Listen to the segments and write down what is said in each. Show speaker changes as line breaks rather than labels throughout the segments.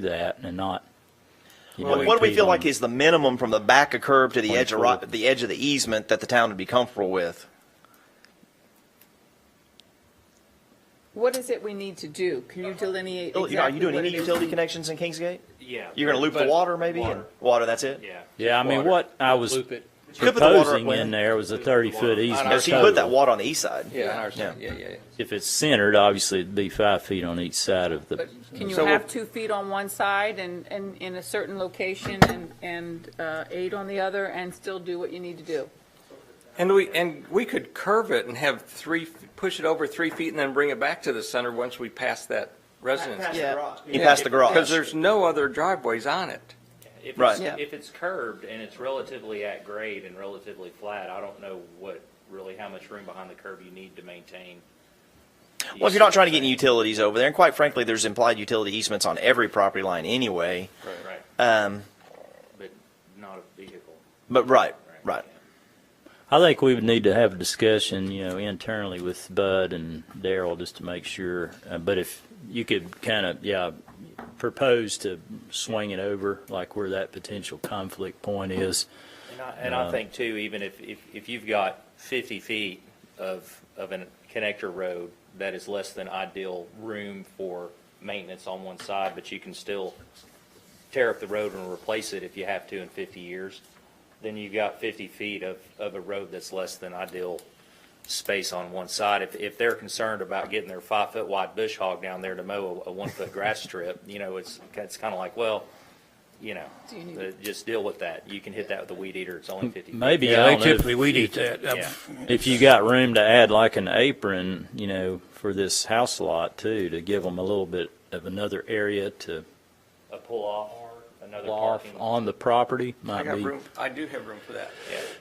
do that and not. you know,
What what do we
impede
feel
on-
like is the minimum from the back of curb to the edge of, ri-
24.
the edge of the easement that the town would be comfortable with?
What is it we need to do? Can you delineate
You
exactly
know, Are Oh, you doing
what
any
it is?
utility connections in Kingsgate?
Yeah.
You're going to loop the
but-
water maybe? and-
Water,
Water, that's it?
yeah.
Yeah, I mean,
Water.
what I was
Loop it.
could put the water
proposing
away.
in there was a thirty-foot easement.
Because he put that
total.
water on the east side.
Yeah, on our side. yeah, yeah. yeah.
If it's centered, obviously it'd be five feet on each side of the,
But Can you
So
have
we'll-
two feet on one side and, and in a certain location and, and uh, eight on the other and still do what you need to do?
And we, and we could curve it and have three, push it over three feet and then bring it back to the center once we pass that residence.
You pass the garage.
Because there's no other driveways on it.
If
Right.
it's,
Yeah.
if it's curved and it's relatively at grade and relatively flat, I don't know what really how much room behind the curb you need to maintain.
Well, if you're not trying to get any utilities over there, and quite frankly, there's implied utility easements on every property line anyway.
right,
Um,
but not a vehicle.
but right, right.
I think we would need to have a discussion, you know, internally with Bud and Daryl just to make sure. Uh, But if you could kind of, yeah, propose to swing it over, like where that potential conflict point is.
And I, and I think too, even if, if, if you've got fifty feet of, of a connector road that is less than ideal room for maintenance on one side, but you can still tear up the road and replace it if you have to in fifty years, then you've got fifty feet of, of a road that's less than ideal space on one side. If, if they're concerned about getting their five-foot wide bush hog down there to mow a, a one-foot grass strip, you know, it's, it's kind of like, well, you know,
Do you need-
uh, just deal with that. You can hit that with a weed eater. It's only fifty. feet.
Maybe,
Yeah,
I
they
don't know, if-
typically weed eat that.
Yeah.
if you got room to add like an apron, you know, for this house lot too, to give them a little bit of another area to
A pull off, another
off
parking.
on the property
I
might
got
be.
room, I do have room for that.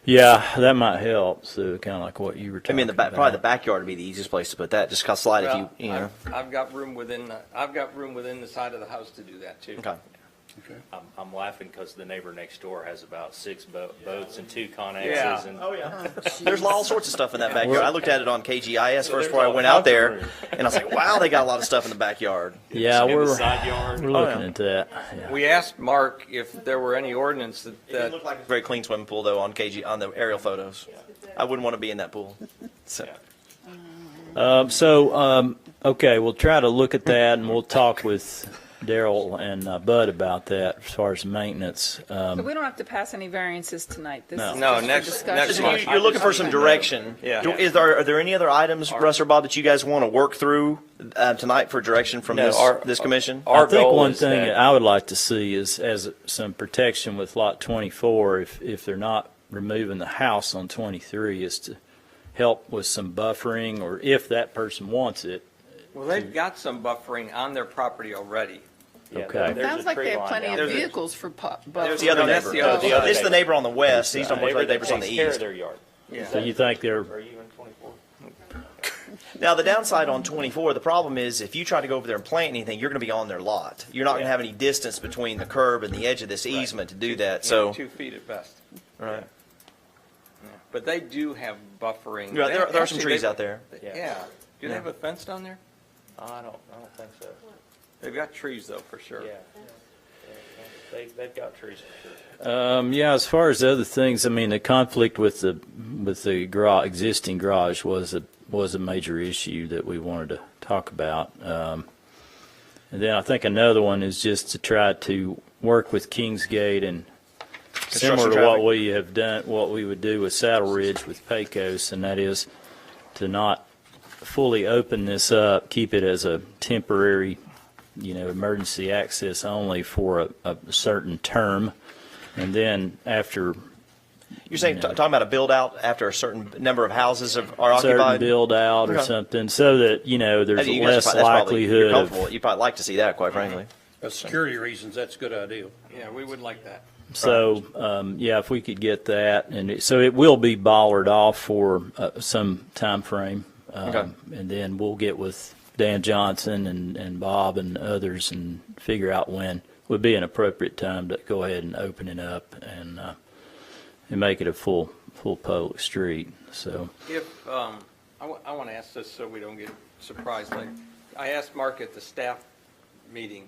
Yeah, that might help. So kind of like what you were
I
talking
mean, the
about.
back, probably the backyard would be the easiest place to put that. Just 'cause slide if you,
Well,
you know.
I've- I've got room within, the- I've got room within the side of the house to do that too.
Okay.
I'm, I'm laughing because the neighbor next door has about six bo- boats and two
Yeah.
Conexes and.
yeah. There's all sorts of stuff in that backyard. I looked at it on KGIS
So
first
there's
before I
all
went out there,
kinds of
and I was like, wow, they got a lot of stuff in the backyard.
Yeah,
In the
we're,
side yard.
we're looking at that. Yeah.
We asked Mark if there were any ordinance that,
It
that
looked like a very clean swimming pool though on KG on the aerial photos. I wouldn't want to be in that pool. So
Um, so, um, okay, we'll try to look at that and we'll talk with Daryl and uh, Bud about that as far as maintenance. Um,
So we don't have to pass any variances tonight. This is
No.
just
No,
for
next-
discussion.
next
So
month.
you- you're looking for some direction.
Yeah.
Do- Is there are there any other items, Russ or Bob, that you guys want to work through uh, tonight for direction from
No,
this
our-
this commission?
our
I think
goal
one
is
thing
that-
I would like to see is as some protection with lot 24, if, if they're not removing the house on 23, is to help with some buffering or if that person wants it.
well, they've got some buffering on their property already.
Yeah,
Okay.
there's a
Sounds like
tree
they have
line
plenty
down
of
there.
There's a-
vehicles for pu-
There's
buses.
the other
No, that's
neighbor.
the other- the other
This is the neighbor on the west. He's
The
not much
neighbor
like
that
neighbors on the
takes care of
east.
Their yard.
Do you think they're,
Are you in twenty-four?
Now, the downside on 24, the problem is if you try to go over there and plant anything, you're going to be on their lot. You're not going to
Yeah.
have any distance between the curb and the edge of this easement to do that.
Yeah,
So,
Two feet at best.
right.
But they do have buffering.
Yeah, there, are- there are some
Actually,
trees
they-
out there.
Yeah. Do they have a fence down there?
I don't, I don't think so.
They've got trees though, for sure.
Yeah. They, they've got trees for sure.
um, yeah, as far as other things, I mean, the conflict with the, with the garage, existing garage was a, was a major issue that we wanted to talk about. Um, and then I think another one is just to try to work with Kingsgate and similar to what
traffic.
we have done, what we would do with Saddle Ridge with Pecos, and that is to not fully open this up, keep it as a temporary, you know, emergency access only for a, a certain term. And then after
You're saying, t- talking about a build out after a certain number of houses of, are
a certain
occupied?
build out or
Okay.
something, so that, you know,
I
there's
mean, you guys
less
are probably- that's probably- you're
likelihood
comfortable.
of,
You'd probably like to see that, quite frankly.
For security reasons, that's a good idea.
Yeah, we would like that.
so, um, yeah, if we could get that, and it, so it will be bollered off for, uh, some timeframe.
Okay.
Um, and then we'll get with Dan Johnson and, and Bob and others and figure out when would be an appropriate time to go ahead and open it up and, uh, and make it a full, full public street, so.
If, um, I want to ask this so we don't get surprised later. I asked Mark at the staff meeting